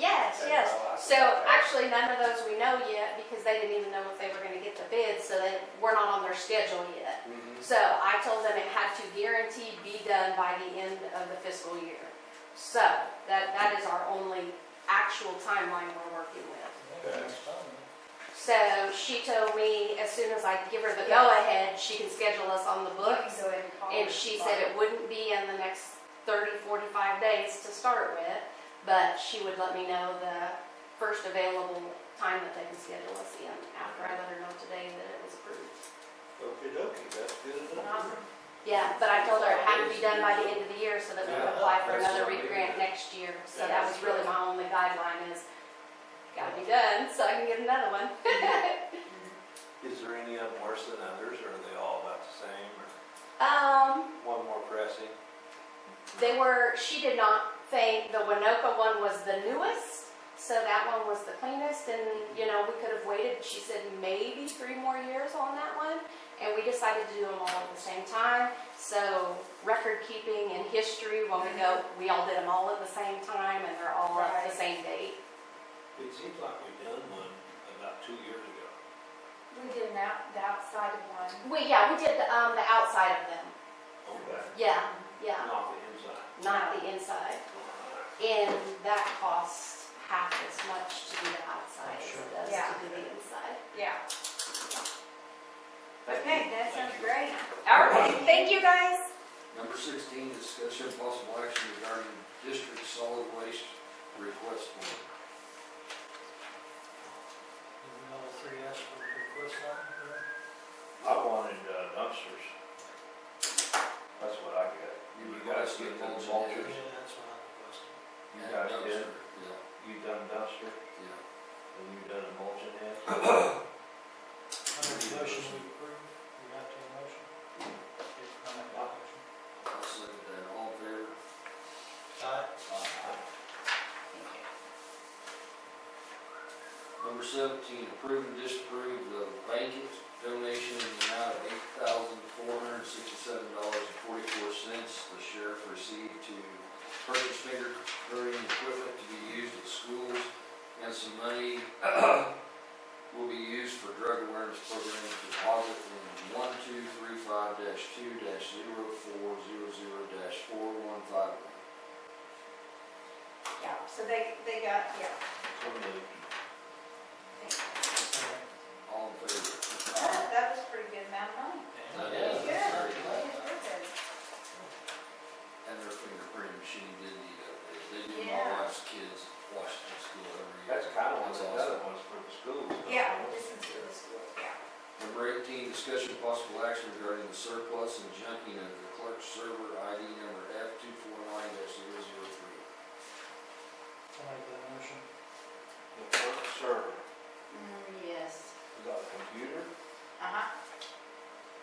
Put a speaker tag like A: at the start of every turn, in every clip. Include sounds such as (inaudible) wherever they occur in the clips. A: Yes, yes. So actually, none of those we know yet because they didn't even know if they were gonna get the bid, so they, we're not on their schedule yet.
B: Mhm.
A: So I told them it had to guarantee be done by the end of the fiscal year. So that, that is our only actual timeline we're working with. So she told me as soon as I give her the go-ahead, she can schedule us on the books.
C: Go ahead and call
A: And
C: her.
A: she said it wouldn't be in the next 30, 45 days to start with, but she would let me know the first available time that they can schedule us in after I let her know today that it was approved.
B: Okey dokey, that's good enough.
C: Awesome.
A: Yeah, but I told her it had to be done by the end of the year so that we could apply for
B: Yeah, that's
A: another
B: what I mean.
A: re-grant next year. So
C: Yeah,
A: that was
C: that's
A: really
C: good.
A: my only guideline is, gotta be done so I can get another one.
B: Is there any of them worse than others, or are they all about the same, or
A: Um,
B: one more pressing?
A: They were, she did not think the Winoka one was the newest, so that one was the cleanest, and, you know, we could have waited, she said, maybe three more years on that one, and we decided to do them all at the same time, so record keeping and history, when we go, we all did them all at the same time, and they're all at
C: Right.
A: the same date.
B: It seems like we done one about two years ago.
C: We did an out, the outside of one.
A: We, yeah, we did, um, the outside of them,
B: Okay.
A: yeah, yeah,
B: Not the inside.
A: not the inside, and that costs half as much to do the outside as it does
C: Yeah.
A: to do the inside.
C: Yeah.
B: Thank
C: Okay,
B: you. Thank
C: that sounds
B: you.
C: great. All right, thank you guys.
D: Number sixteen, discussion of possible action regarding district solid waste request form.
E: All three asked for a request on it,
B: I wanted uh, dumpsters. That's what I got.
D: You
B: You guys get
D: requested
B: them
D: mulch
B: all.
D: and
E: yeah,
D: ditch.
E: that's what I requested.
B: You
D: And
B: guys
D: dumpster.
B: did?
D: Yeah,
B: You done dumpster,
D: yeah.
B: and you done a mulching
E: (coughs)
B: head?
E: I make a motion we approve, we have to have a motion. If I make a motion.
D: I'll second that. All in favor?
E: Aye.
D: Number seventeen, approve and disapprove the blanket donation in the amount of eight thousand four hundred and sixty-seven dollars and forty-four cents the sheriff received to purchase finger printing equipment to be used at schools, and some money will be used for drug awareness program deposit in one two three five two 400 four one five one.
C: Yeah, so they, they got, yeah.
B: So moved.
D: All in favor?
C: That that was pretty good amount of money.
E: And-
D: Yeah, that's
C: Good.
D: very
C: Yeah,
D: good.
C: very good.
D: And their fingerprint machine did need updates. They do my
C: Yeah.
D: wife's kids Washington school every year.
B: That's kind of one of
D: That's
B: the
D: awesome.
B: other ones for the schools. don't
C: Yeah,
B: you?
C: this is good, this is good, yeah.
D: Number eighteen, discussion of possible action regarding the surplus and junking of the clerk's server ID number F two four nine 3
E: I make that motion.
B: The clerk server,
C: Yes.
B: is that a computer?
C: Uh-huh.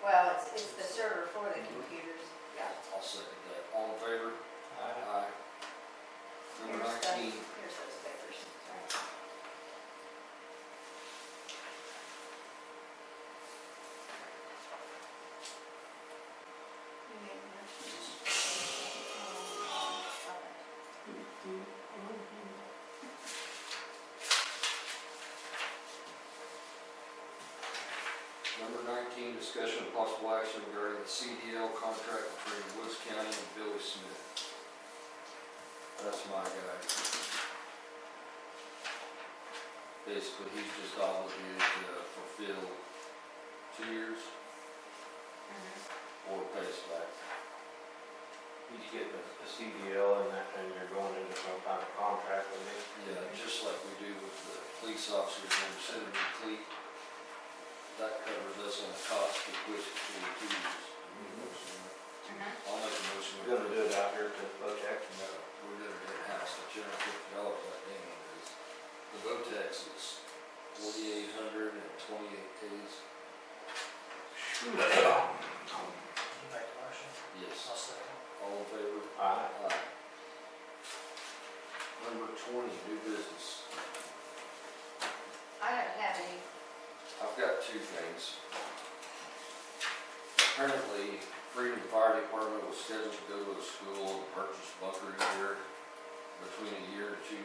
C: Well, it's, it's the server for the computers. Yeah.
D: I'll second that. All in favor?
E: Aye.
D: Aye. Number
C: Here's the-
D: nineteen,
C: Here's those papers, sorry. You made a motion. Um,
D: number nineteen, discussion of possible action regarding the CDL contract between Woods County and Billy Smith. That's my guy. Basically, he's just obligated to fulfill two years
C: Mhm.
D: or pay us back.
B: You get the the CDL and that, and you're going into some kind of contract with it.
D: Yeah, just like we do with the police officers and Senator Cleet. That covers us on the cost of which we do use. Mm-hmm.
C: Mhm.
D: I'll make a motion.
B: We're gonna do it out here to Botex.
D: No, we're gonna do it house, the two hundred fifty dollars, that thing is. The Votex is forty-eight hundred and twenty-eight days.
E: You make a motion.
D: Yes,
E: I'll second.
D: all in favor?
B: Aye.
D: Aye. Number twenty, new business.
C: I don't have any,
D: I've got two things. Apparently, Freedom Fire Department was scheduled to go to a school and purchase bunker gear between a year and two